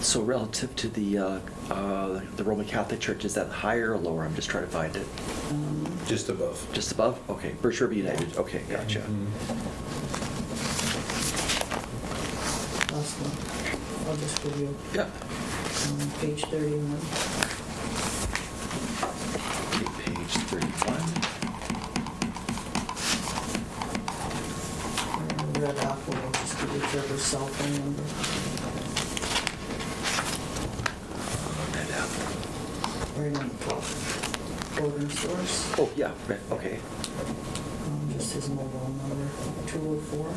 So relative to the, uh, uh, the Roman Catholic Church, is that higher or lower? I'm just trying to find it. Just above. Just above? Okay, Birch River United, okay, gotcha. Mm-hmm. Last one. I'll just give you Yeah. um, page 31. Okay, Page 31. Uh, Red apple, I'll just give you Trevor's cell phone number. Uh, Red apple. Right on the top. Order source, Oh, yeah, right, okay. um, just his mobile number, 204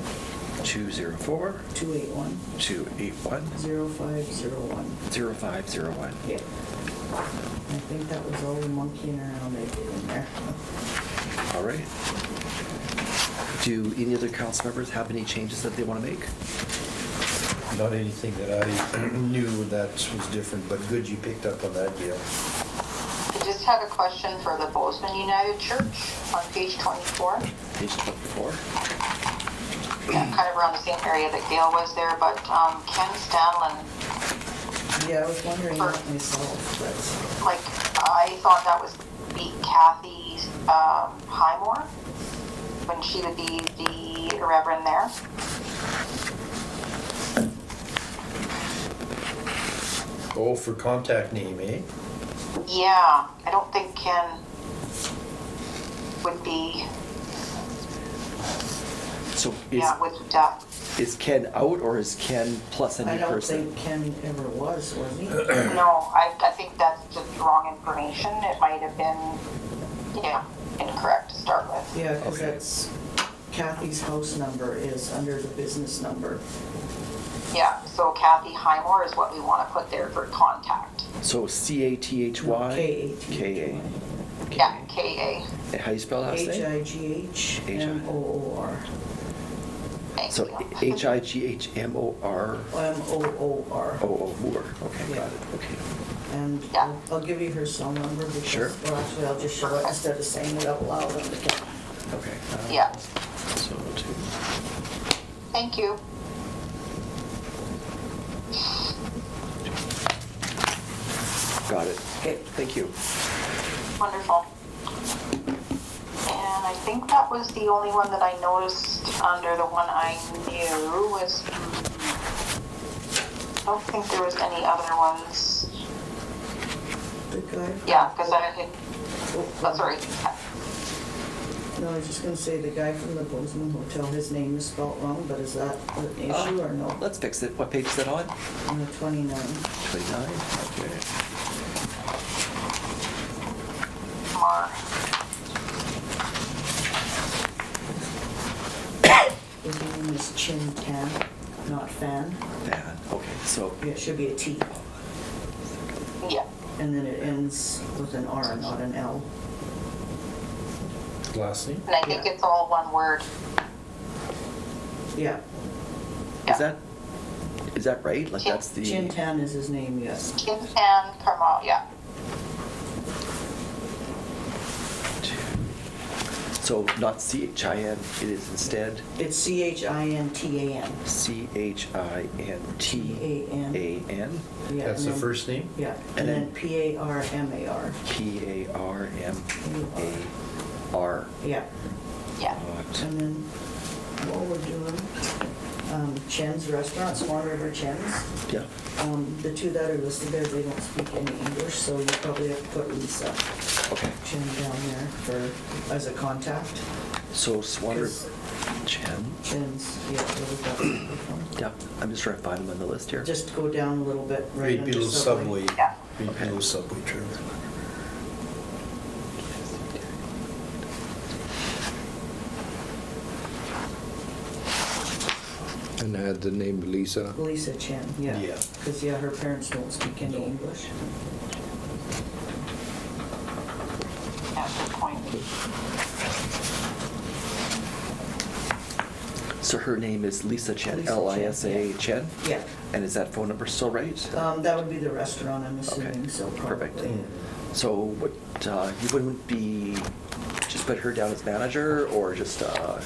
204, 281 281, 0501. 0501. Yeah. I think that was all the monkeying around I did in there. All right. Do any other council members have any changes that they want to make? Not anything that I knew that was different, but good you picked up on that, Gail. I just have a question for the Bozeman United Church on page 24. Page 24. Yeah, Kind of around the same area that Gail was there, but um, Ken Stanlin, Yeah, I was wondering that myself, like, I thought that was be Kathy um, Highmore, when she would be the reverend there. Oh, for contact name, eh? Yeah, I don't think Ken would be, So is, yeah, would, uh, is Ken out or is Ken plus a but I new don't person? think Ken ever was, was he? no, I, I think that's just wrong information. It might have been, yeah, incorrect to start with. Yeah, because Okay. that's Kathy's house number is under the business number. Yeah, so Kathy Highmore is what we want to put there for contact. So C-A-T-H-Y? K-A-T-H-Y. K-A. Okay. Yeah, K A. And How you spell last name? H-I-G-H-M-O-O-R. Thank So you. H-I-G-H-M-O-R, M-O-O-R. O-O, Moore. Okay, got Yeah. it, okay. And Yeah. I'll- I'll give you her cell number because, Sure. well, actually, I'll just show it instead of saying it out loud on the camera. Okay. uh, Yeah, So two. thank you. Got it. Okay. Thank you. Wonderful. And I think that was the only one that I noticed under the one I knew was, I don't think there was any other ones. The guy. from- Yeah, because I had, Oh, oh, sorry. No, I was just gonna say, the guy from the Bozeman Hotel, his name is spelled wrong, but is that an issue or no? Let's fix it. What page is that on? Oh. On the 29. 29? Okay. Mar. His name is Chin Tan, not Fan. That, okay, so, Yeah, It should be a T, Yeah, and then it ends with an R, not an L. Last name? and I think it's all one word. Yeah, is Yeah. that, is that right? Like, that's the. Chin Tan is his name, yes. Kim and Carmel, yeah. So not C-H-I-N, it is instead It's C-H-I-N-T-A-N. C-H-I-N-T-A-N, Yeah, That's and the then- first name? Yeah, And and then- then P-A-R-M-A-R, P-A-R-M-A-R. yeah. Yeah. Oh, And then what we're doing, um, Chen's Restaurant, Swan River Chen's. Yeah, Um, The two that are listed there, they don't speak any English, so you probably have to put Lisa okay. Chen down there for, as a contact. So Swan River, 'Cause Chen, Chen's, yeah, where we got from. yeah, I'm just trying to find them on the list here. Just go down a little bit, right Right under below Subway. Subway. Yeah. Right Okay. below Subway, Trevor. And had the name Lisa. Lisa Chen, yeah. Yeah. Because, yeah, her parents don't speak any No. English. Yeah, good point. So her name is Lisa Lisa Chen, Chen, L-I-S-A yeah. Chen? Yeah, And is that phone number still right? um, that would be the restaurant, I'm Okay, assuming, so probably. perfect. Mm. So what, uh, you wouldn't be, just put her down as manager or just, uh,